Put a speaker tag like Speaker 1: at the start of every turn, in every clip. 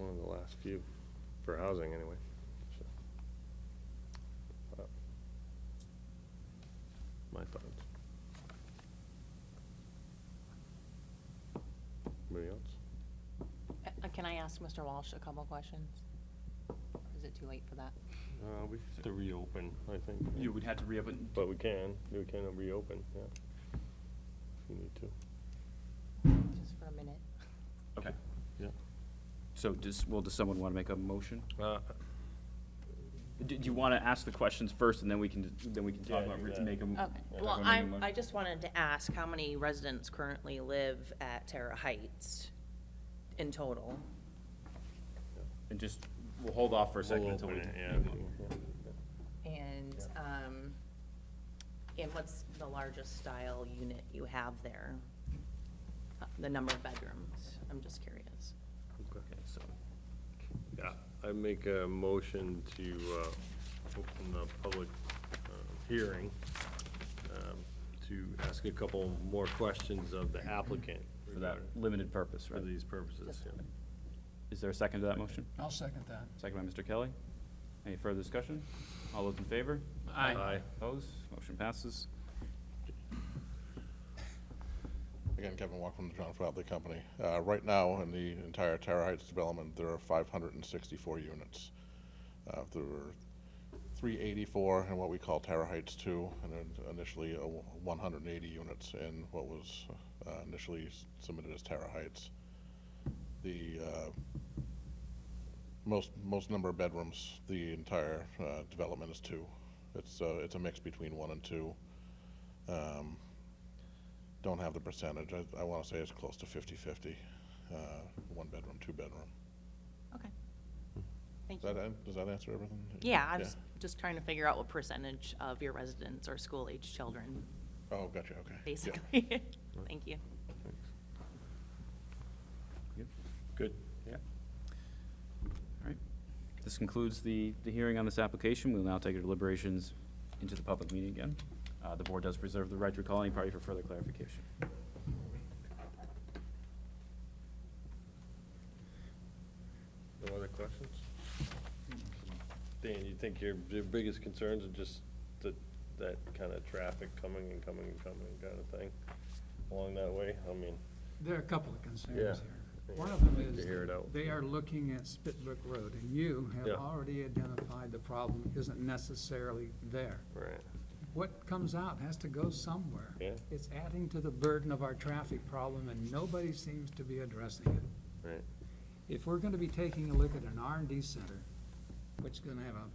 Speaker 1: last few, for housing anyway. So, uh, My thoughts. Anybody else?
Speaker 2: Uh, Can I ask Mr. Walsh a couple questions? Is it too late for that?
Speaker 1: Uh, we have to reopen, I think.
Speaker 3: You would have to reopen.
Speaker 1: But we can, we can reopen, yeah. If you need to.
Speaker 2: Just for a minute?
Speaker 3: Okay.
Speaker 1: Yeah.
Speaker 3: So does, well, does someone want to make a motion?
Speaker 1: Uh,
Speaker 3: Do do you want to ask the questions first, and then we can, then we can
Speaker 1: Yeah,
Speaker 3: talk about,
Speaker 1: do
Speaker 3: re-
Speaker 1: that.
Speaker 3: make a m-
Speaker 2: Okay,
Speaker 3: talk
Speaker 4: Oh, Well,
Speaker 3: about making a
Speaker 4: I'm,
Speaker 3: motion?
Speaker 4: I just wanted to ask how many residents currently live at Terra Heights in total?
Speaker 3: And just, we'll hold off for a second until we.
Speaker 4: And, um, and what's the largest style unit you have there? Uh, The number of bedrooms, I'm just curious.
Speaker 3: Okay, so,
Speaker 1: Yeah, I make a motion to uh, open the public uh, hearing um, to ask a couple more questions of the applicant
Speaker 3: for that
Speaker 1: regarding-
Speaker 3: limited purpose,
Speaker 1: for
Speaker 3: right?
Speaker 1: these purposes. yeah.
Speaker 3: Is there a second to that motion?
Speaker 5: I'll second that.
Speaker 3: Second by Mr. Kelly. Any further discussion? All those in favor?
Speaker 1: Aye.
Speaker 3: Opposed? Motion passes.
Speaker 6: Again, Kevin Walk from the John Bradley Company. Uh, Right now, in the entire Terra Heights development, there are 564 units. Uh, There were 384 in what we call Terra Heights 2, and then initially uh, 180 units in what was uh, initially s- submitted as Terra Heights. The uh, most, most number of bedrooms, the entire uh, development is two. It's, uh, it's a mix between one and two. Um, don't have the percentage. I, I want to say it's close to 50/50, uh, one bedroom, two bedroom.
Speaker 4: Okay. Thank
Speaker 6: Does
Speaker 4: you.
Speaker 6: that, an- does that answer everything?
Speaker 4: Yeah, I was just trying to figure out what percentage of your residents are school-aged children,
Speaker 6: Oh, gotcha, okay. Yeah.
Speaker 4: basically. Thank you.
Speaker 3: Good. Yeah. All right. This concludes the, the hearing on this application. We'll now take our deliberations into the public meeting again. Uh, the board does reserve the right to recall any party for further clarification.
Speaker 1: No other questions? Dan, you think your, your biggest concerns are just that, that kind of traffic coming and coming and coming kind of thing along that way? I mean,
Speaker 5: There are a couple of concerns
Speaker 1: Yeah.
Speaker 5: here. One of them
Speaker 1: Need to
Speaker 5: is,
Speaker 1: hear it out.
Speaker 5: they are looking at Spitbrook Road, and you
Speaker 1: Yeah.
Speaker 5: have already identified the problem isn't necessarily there.
Speaker 1: right,
Speaker 5: What comes out has to go somewhere.
Speaker 1: Yeah.
Speaker 5: It's adding to the burden of our traffic problem, and nobody seems to be addressing it.
Speaker 1: right.
Speaker 5: if we're gonna be taking a look at an R and D center, which is gonna have a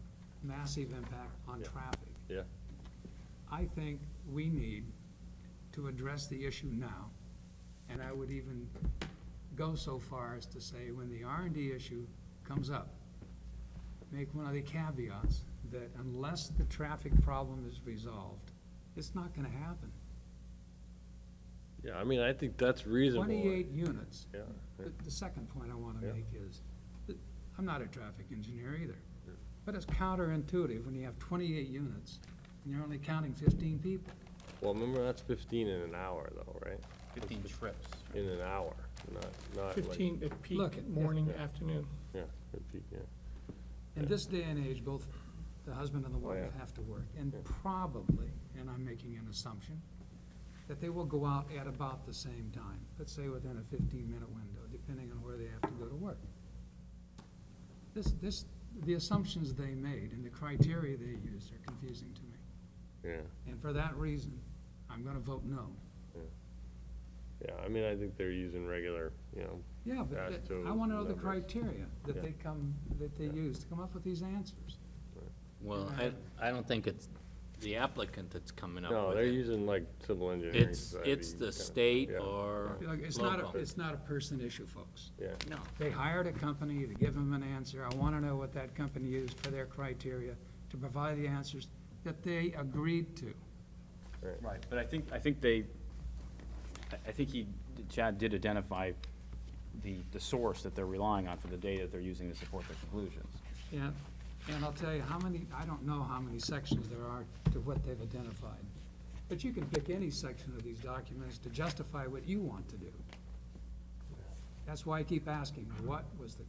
Speaker 5: massive impact on
Speaker 1: Yeah.
Speaker 5: traffic.
Speaker 1: Yeah.
Speaker 5: I think we need to address the issue now, and I would even go so far as to say, when the R and D issue comes up, make one of the caveats that unless the traffic problem is resolved, it's not gonna happen.
Speaker 1: Yeah, I mean, I think that's reasonable.
Speaker 5: Twenty-eight units
Speaker 1: Yeah,
Speaker 5: the, the second point I want
Speaker 1: Yeah.
Speaker 5: to make is, that I'm not a traffic engineer either, but it's counterintuitive when you have twenty-eight units and you're only counting fifteen people.
Speaker 1: well, remember, that's fifteen in an hour though, right?
Speaker 3: Fifteen trips.
Speaker 1: In an hour, not, not like.
Speaker 7: 15 at
Speaker 5: Look,
Speaker 7: peak,
Speaker 5: if-
Speaker 7: morning, afternoon.
Speaker 1: Yeah, fifteen, yeah.
Speaker 5: In this day and age, both the husband and the wife
Speaker 1: Oh, yeah.
Speaker 5: have to work, and probably, and I'm making an assumption, that they will go out at about the same time, let's say within a fifteen-minute window, depending on where they have to go to work. This, this, the assumptions they made and the criteria they used are confusing to me.
Speaker 1: Yeah,
Speaker 5: And for that reason, I'm gonna vote no.
Speaker 1: yeah, I mean, I think they're using regular, you know,
Speaker 5: Yeah, but
Speaker 1: As
Speaker 5: that-
Speaker 1: to
Speaker 5: I wanna know the
Speaker 1: numbers.
Speaker 5: criteria
Speaker 1: Yeah.
Speaker 5: that they come, that they use to come up with these answers.
Speaker 8: Well, I, I don't think it's the applicant that's coming up with it.
Speaker 1: no, they're using like civil engineering.
Speaker 8: It's,
Speaker 1: society
Speaker 8: it's the
Speaker 1: kinda-
Speaker 8: state
Speaker 1: yeah,
Speaker 8: or
Speaker 5: Like, It's not, a
Speaker 8: local.
Speaker 5: it's not a person issue, folks.
Speaker 1: Yeah,
Speaker 8: No,
Speaker 5: They hired a company to give them an answer. I wanna know what that company used for their criteria to provide the answers that they agreed to.
Speaker 3: Right, but I think, I think they, I- I think he, Chad did identify the, the source that they're relying on for the data that they're using to support their conclusions.
Speaker 5: And, and I'll tell you how many, I don't know how many sections there are to what they've identified. But you can pick any section of these documents to justify what you want to do. That's why I keep asking, what was the